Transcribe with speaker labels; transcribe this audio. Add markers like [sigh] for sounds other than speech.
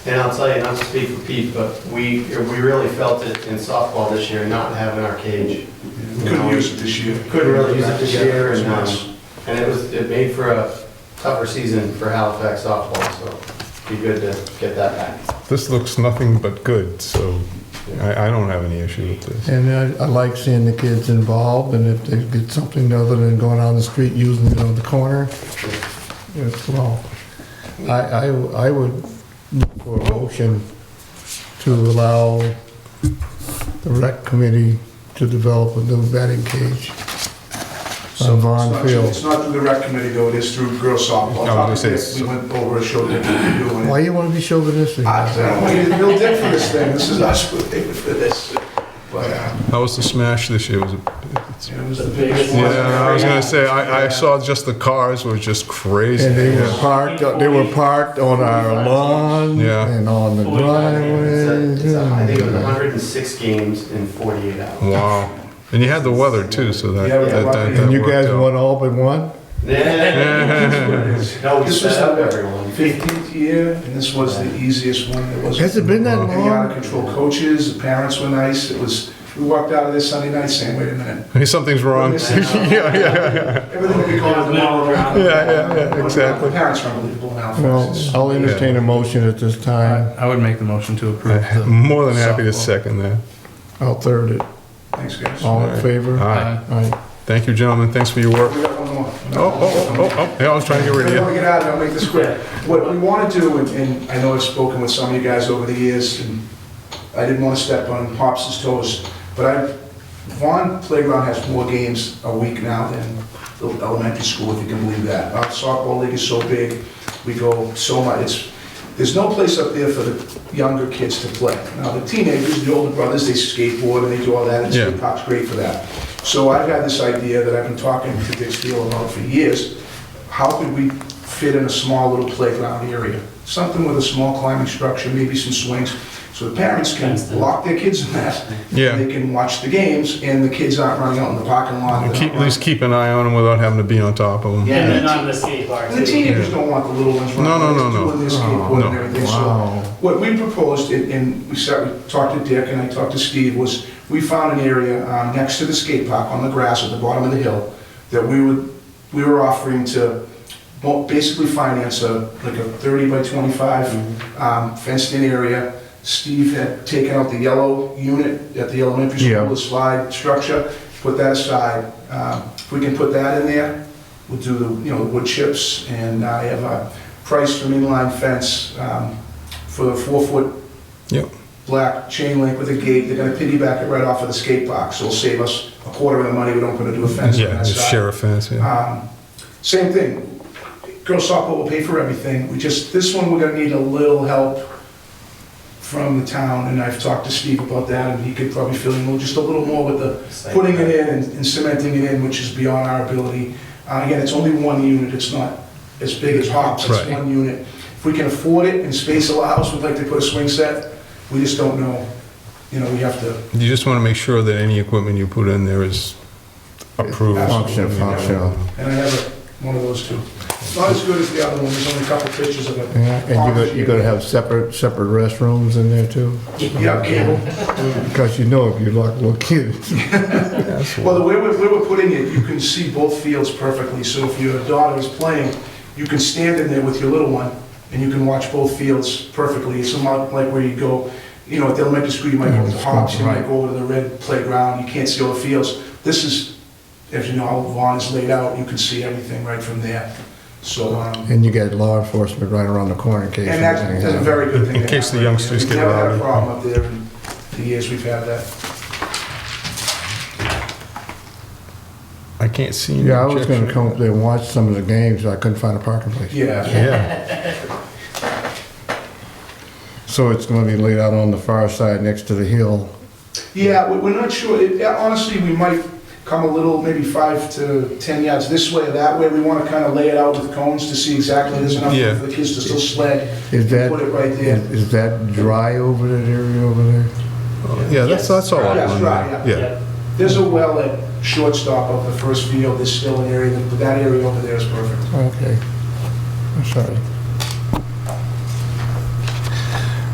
Speaker 1: And I'll tell you, not to speak for Pete, but we, we really felt it in softball this year, not having our cage.
Speaker 2: Couldn't use it this year.
Speaker 1: Couldn't really use it this year, and,
Speaker 2: Yeah.
Speaker 1: um, and it was, it made for a tougher season for Halifax softball, so be good to get that back.
Speaker 3: This looks nothing but good, so I, I don't have any issue with this.
Speaker 4: And I, I like seeing the kids involved, and if they get something other than going on the street using, you know, the corner, it's well. I, I, I would look for a motion to allow the rec committee to develop a new batting cage on
Speaker 2: It's
Speaker 4: Vaughn
Speaker 2: not- It's
Speaker 4: Field.
Speaker 2: not through the rec committee though, it is through girls softball.
Speaker 3: No, this is-
Speaker 2: We went over and showed them what we're doing. Ah,
Speaker 4: Why you wanna be chauvinistic?
Speaker 2: I I don't want you to build dick for this thing, this is us, [laughs] we're paying for
Speaker 3: [laughs]
Speaker 2: this. But, uh,
Speaker 3: How was the smash this year? Was it?
Speaker 2: it was the biggest one.
Speaker 3: Yeah, I was gonna say, I, I saw just the cars were just crazy.
Speaker 4: And they were
Speaker 3: Yeah.
Speaker 4: parked, they were parked on our lawn
Speaker 3: Yeah.
Speaker 4: and on the driveway.
Speaker 1: It's a- it's a- I think it was 106 games in 48
Speaker 2: [laughs]
Speaker 1: hours. [laughs]
Speaker 3: Wow. And you had the weather too, so that,
Speaker 2: Yeah, we
Speaker 3: that,
Speaker 2: were
Speaker 3: that,
Speaker 2: lucky.
Speaker 3: that
Speaker 4: And you
Speaker 3: worked
Speaker 4: guys
Speaker 3: out.
Speaker 4: won all but one?
Speaker 1: No, we
Speaker 2: This was
Speaker 1: set up
Speaker 2: the
Speaker 1: everyone.
Speaker 2: 15th year, and this was the easiest one, it was.
Speaker 4: Has it been that
Speaker 2: Any out of
Speaker 4: long?
Speaker 2: control coaches, the parents were nice, it was, we walked out of this Sunday night saying, wait a minute,
Speaker 3: Hey, Something's wrong. yeah, [laughs] yeah, yeah.
Speaker 2: everything will be going tomorrow around.
Speaker 3: [laughs]
Speaker 2: uh,
Speaker 3: Yeah, yeah, yeah, exactly.
Speaker 2: The parents are unbelievable now.
Speaker 4: Well, I'll entertain a motion at this time.
Speaker 5: I would make the motion to approve
Speaker 3: I'm
Speaker 5: the.
Speaker 3: More than happy to
Speaker 5: softball.
Speaker 3: second that.
Speaker 4: I'll third it.
Speaker 2: Thanks, guys.
Speaker 3: Oh.
Speaker 4: All in
Speaker 3: All
Speaker 4: favor?
Speaker 3: right.
Speaker 5: Aye.
Speaker 4: Aye.
Speaker 3: Thank you, gentlemen. Thanks for your work.
Speaker 2: We got one more.
Speaker 3: Oh, oh, oh, oh, yeah, I was trying to get rid of
Speaker 2: Before
Speaker 3: you.
Speaker 2: we get out, of it, I'll make this quick. What we want to do, and- and I know I've spoken with some of you guys over the years, and I didn't want to step on Pops' toes, but I, Vaughn Playground has more games a week now than the elementary school, if you can believe that. Our softball league is so big, we go so much, it's, there's no place up there for the younger kids to play. Now, the teenagers, the older brothers, they skateboard and they do all that, and
Speaker 3: Yeah.
Speaker 2: skate park's great for that. So I've had this idea that I've been talking to Dick Steele about for years, how could we fit in a small little playground area? Something with a small climbing structure, maybe some swings, so the parents can lock their kids in that.
Speaker 3: Yeah.
Speaker 2: They can watch the games, and the kids aren't running out in the parking lot.
Speaker 3: And
Speaker 2: They're
Speaker 3: Keep,
Speaker 2: not
Speaker 3: at least keep an eye on them without having to be on top of them.
Speaker 6: Yeah, and then on the skate bar.
Speaker 2: running- The
Speaker 6: too.
Speaker 2: teenagers don't want the little ones running.
Speaker 3: No, no,
Speaker 2: out,
Speaker 3: no, no.
Speaker 2: Doing their
Speaker 3: Oh,
Speaker 2: skateboard
Speaker 3: no.
Speaker 2: and everything, so
Speaker 4: Wow.
Speaker 2: what we proposed, and- and we sat, we talked to Dick and I talked to Steve, was we found an area um, next to the skate park on the grass at the bottom of the hill that we would, we were offering to mo- basically finance a, like a 30 by 25 um, fenced-in area. Steve had taken out the yellow unit at the elementary
Speaker 4: Yeah.
Speaker 2: school, the slide structure, put that aside. Um, If we can put that in there, we'll do the, you know, wood chips, and I have a price for inline fence um, for the four-foot
Speaker 3: Yep.
Speaker 2: black chain link with a gate, they're gonna piggyback it right off of the skate box, it'll save us a quarter of the money we don't put into a fence on
Speaker 3: Yeah,
Speaker 2: that
Speaker 3: the
Speaker 2: side.
Speaker 3: sheriff fence, yeah.
Speaker 2: Um, Same thing, girls softball will pay for everything, we just, this one, we're gonna need a little help from the town, and I've talked to Steve about that, and he could probably fill in a little- just a little more with the putting it in and and cementing it in, which is beyond our ability. Uh, Again, it's only one unit, it's not as big as Hops, it's
Speaker 3: Right.
Speaker 2: one unit. If we can afford it and space allows, we'd like to put a swing set, we just don't know, you know, we have to.
Speaker 3: You just want to make sure that any equipment you put in there is approved.
Speaker 4: Function, functional.
Speaker 2: And I have a- one of those too. It's not as good as the other one, there's only a couple pictures of it.
Speaker 4: Yeah, And you're gonna, you're gonna have separate, separate restrooms in there too?
Speaker 2: Yeah, cable.
Speaker 4: Because you know if you lock little kids.
Speaker 2: Well, the way we're, way we're putting it, you can see both fields perfectly, so if your daughter is playing, you can stand in there with your little one, and you can watch both fields perfectly. It's not like where you go, you know, at the elementary school, you might go to Hops, you might go over to the red playground, you can't see all the fields. This is, as you know, how Vaughn is laid out, you can see everything right from there, so, um,
Speaker 4: And you got law enforcement right around the corner in case.
Speaker 2: and that's
Speaker 4: anything
Speaker 2: that's a
Speaker 4: happens.
Speaker 2: very good thing.
Speaker 3: In
Speaker 2: to
Speaker 3: case
Speaker 2: have
Speaker 3: the
Speaker 2: right there.
Speaker 3: youngsters get
Speaker 2: We've never had a
Speaker 3: rowdy.
Speaker 2: problem up there in the years we've had that.
Speaker 3: I can't see. any
Speaker 4: Yeah, I was
Speaker 3: objection.
Speaker 4: gonna come up there and watch some of the games, I couldn't find a parking place.
Speaker 2: Yeah,
Speaker 3: Yeah,
Speaker 4: So it's gonna be laid out on the far side next to the hill.
Speaker 2: Yeah, we- we're not sure. It- yeah, Honestly, we might come a little, maybe five to 10 yards this way or that way. We want to kind of lay it out with cones to see exactly, there's enough
Speaker 3: Yeah.
Speaker 2: room for the kids to still sled.
Speaker 4: Is that,
Speaker 2: Put it right there.
Speaker 4: is that dry over that area over there?
Speaker 3: yeah, that's, that's all. I
Speaker 2: Yes,
Speaker 3: wanted.
Speaker 2: right, yeah.
Speaker 3: Yeah,
Speaker 2: There's a well at shortstop of the first field, there's still an area, but that area over there is perfect.
Speaker 4: Okay. I'm sorry.